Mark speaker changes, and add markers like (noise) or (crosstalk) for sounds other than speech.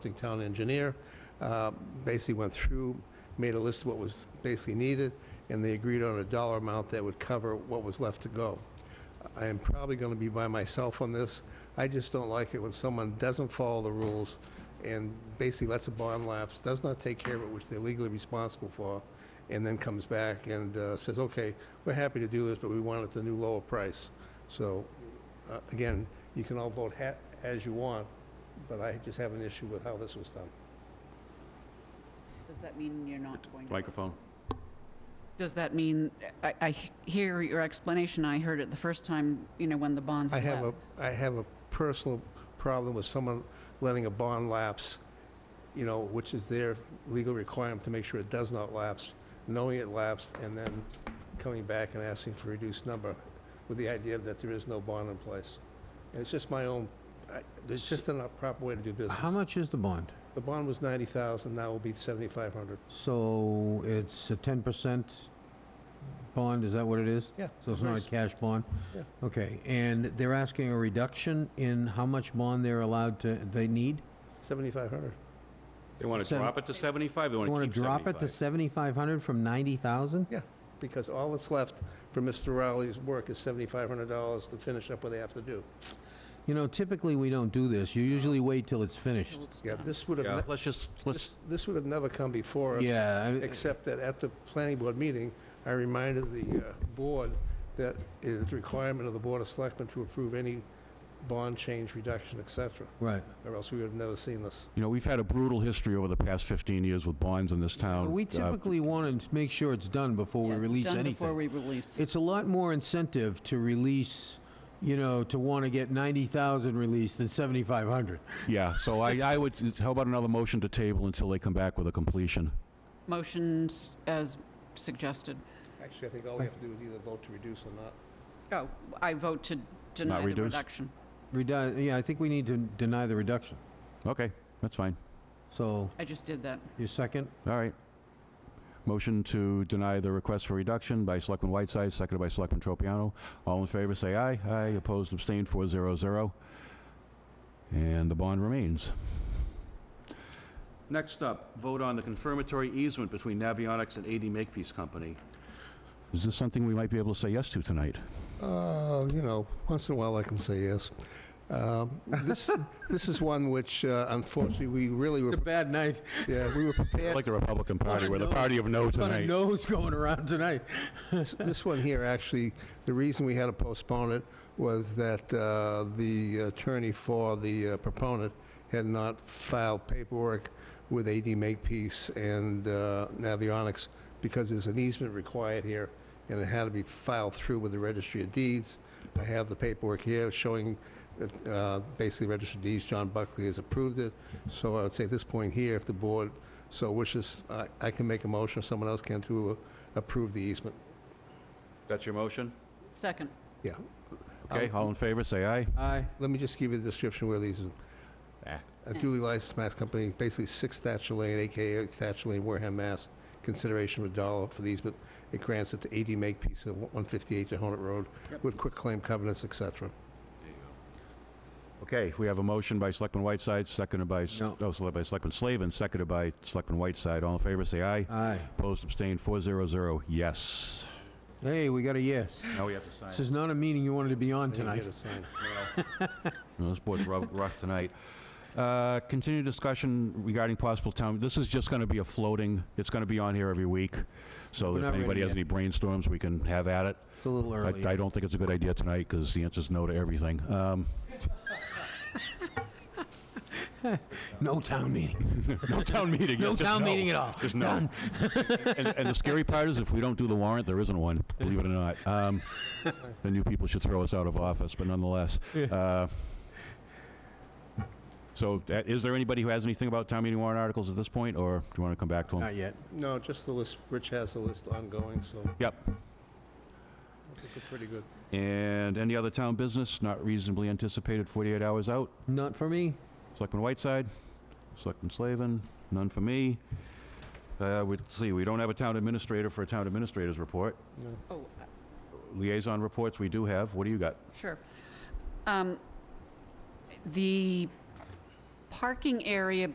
Speaker 1: consulting town engineer, uh, basically went through, made a list of what was basically needed, and they agreed on a dollar amount that would cover what was left to go. I am probably going to be by myself on this. I just don't like it when someone doesn't follow the rules and basically lets a bond lapse, does not take care of it, which they're legally responsible for, and then comes back and uh, says, okay, we're happy to do this, but we want it at the new lower price. So, uh, again, you can all vote ha- as you want, but I just have an issue with how this was done.
Speaker 2: Does that mean you're not going to?
Speaker 3: Microphone.
Speaker 2: Does that mean, I, I hear your explanation, I heard it the first time, you know, when the bond
Speaker 1: I have a,
Speaker 2: left.
Speaker 1: I have a personal problem with someone letting a bond lapse, you know, which is their legal requirement to make sure it does not lapse, knowing it lapsed, and then coming back and asking for a reduced number with the idea that there is no bond in place. And it's just my own, I- it's just a not proper way to do business.
Speaker 4: How much is the bond?
Speaker 1: The bond was 90,000, now it will be 7,500.
Speaker 4: So it's a 10% bond, is that what it is?
Speaker 1: Yeah.
Speaker 4: So it's not a
Speaker 1: nice.
Speaker 4: cash bond?
Speaker 1: Yeah.
Speaker 4: Okay, and they're asking a reduction in how much bond they're allowed to, they need?
Speaker 1: 7,500.
Speaker 3: They want to
Speaker 4: Seven-
Speaker 3: drop it to 75, they
Speaker 4: You
Speaker 3: want
Speaker 4: want
Speaker 3: to keep
Speaker 4: to drop it to
Speaker 3: 75.
Speaker 4: 7,500 from 90,000?
Speaker 1: Yes, because all that's left for Mr. Rowley's work is $7,500 to finish up what they have to do.
Speaker 4: You know, typically, we don't do this. You usually wait till it's finished.
Speaker 2: Till it's
Speaker 1: Yeah,
Speaker 2: done.
Speaker 1: this would have,
Speaker 3: Yeah,
Speaker 1: ne-
Speaker 3: let's just,
Speaker 1: this
Speaker 3: let's,
Speaker 1: this would have never come before us.
Speaker 4: Yeah, I-
Speaker 1: Except that at the planning board meeting, I reminded the uh, board that it is a requirement of the Board of Selectmen to approve any bond change, reduction, et cetera,
Speaker 4: right.
Speaker 1: or else we would have never seen this.
Speaker 3: you know, we've had a brutal history over the past 15 years with bonds in this town.
Speaker 4: We
Speaker 3: Uh,
Speaker 4: typically want to make sure it's done before we
Speaker 2: Yeah,
Speaker 4: release
Speaker 2: Done
Speaker 4: anything.
Speaker 2: before we release.
Speaker 4: It's a lot more incentive to release, you know, to want to get 90,000 released than 7,500.
Speaker 3: Yeah, so I, I would, how about another motion to table until they come back with a completion?
Speaker 2: Motions as suggested.
Speaker 1: Actually, I think all we have to do is either vote to reduce or not.
Speaker 2: Oh, I vote to deny the
Speaker 3: reduce?
Speaker 2: reduction.
Speaker 4: Redu- yeah, I think we need to deny the reduction.
Speaker 3: Okay, that's fine,
Speaker 4: So,
Speaker 2: I just did that.
Speaker 4: your second?
Speaker 3: all right. Motion to deny the request for reduction by Selectman Whiteside, seconded by Selectman Tropiano. All in favor, say aye. Aye, opposed, abstained, 400. And the bond remains. Next up, vote on the confirmatory easement between Navionics and AD Makepeace Company. Is this something we might be able to say yes to tonight?
Speaker 1: Uh, you know, once in a while I can say yes. Um, This, (laughs) this is one which uh, unfortunately, we really were,
Speaker 4: bad night. (laughs)
Speaker 1: yeah, we were
Speaker 3: (laughs)
Speaker 1: prepared.
Speaker 3: Like the Republican Party,
Speaker 4: a
Speaker 3: we're the
Speaker 4: no.
Speaker 3: party of no
Speaker 4: Ton of
Speaker 3: tonight.
Speaker 4: no's going around tonight.
Speaker 1: This- This one here, actually, the reason we had to postpone it was that uh, the attorney for the uh, proponent had not filed paperwork with AD Makepeace and uh, Navionics because there's an easement required here, and it had to be filed through with the Registry of Deeds. I have the paperwork here showing that uh, basically Registry of Deeds, John Buckley has approved it. So I would say at this point here, if the board so wishes, I- I can make a motion, or someone else can, to uh, approve the easement.
Speaker 3: That's your motion?
Speaker 2: Second.
Speaker 1: Yeah.
Speaker 3: Okay,
Speaker 1: Um,
Speaker 3: all in favor, say aye.
Speaker 4: Aye.
Speaker 1: Let me just give you the description where these, are.
Speaker 3: Ah.
Speaker 1: a duly licensed mass company, basically six Thatcher Lane, AKA Thatcher Lane, Wareham, Mass. Consideration of a dollar for these, but it grants it to AD Makepeace of 158 Jehonet Road with quick claim covenants, et cetera.
Speaker 3: Okay, we have a motion by Selectman Whiteside, seconded by,
Speaker 4: No.
Speaker 3: oh, seconded by Selectman Slavin, seconded by Selectman Whiteside. All in favor, say aye.
Speaker 4: Aye.
Speaker 3: Opposed, abstained, 400, yes.
Speaker 4: Hey, we got a yes.
Speaker 3: Now we have to
Speaker 4: This is not a meeting you wanted to be on
Speaker 1: I
Speaker 4: tonight.
Speaker 1: didn't get it signed.
Speaker 3: No, This board's rough rough tonight. Uh, Continued discussion regarding possible town, this is just going to be a floating, it's going to be on here every week, so
Speaker 4: We're
Speaker 3: if
Speaker 4: not ready
Speaker 3: anybody has
Speaker 4: yet.
Speaker 3: any brainstorms, we can have at it.
Speaker 4: It's a little
Speaker 3: I-
Speaker 4: early.
Speaker 3: I don't think it's a good idea tonight, because the answer's no to everything. Um,
Speaker 4: No town meeting.
Speaker 3: (laughs) No town meeting.
Speaker 4: No
Speaker 3: It's just
Speaker 4: town meeting at all.
Speaker 3: Just no. and, and the scary part is, if we don't do the warrant, there isn't one. Believe it or not. Um, the new people should throw us out of office, but nonetheless. Uh, so, uh, is there anybody who has anything about town meeting warrant articles at this point, or do you want to come back to them?
Speaker 4: Not yet.
Speaker 1: No, just the list, Rich has the list ongoing, so I
Speaker 3: Yep.
Speaker 1: think we're pretty good.
Speaker 3: And any other town business not reasonably anticipated 48 hours out?
Speaker 4: Not for me.
Speaker 3: Selectman Whiteside, Selectman Slavin, none for me. Uh, we, see, we don't have a town administrator for a town administrator's report.
Speaker 1: No.
Speaker 2: Oh,
Speaker 3: Liaison reports we do have. What do you got?
Speaker 2: Sure. Um, The parking area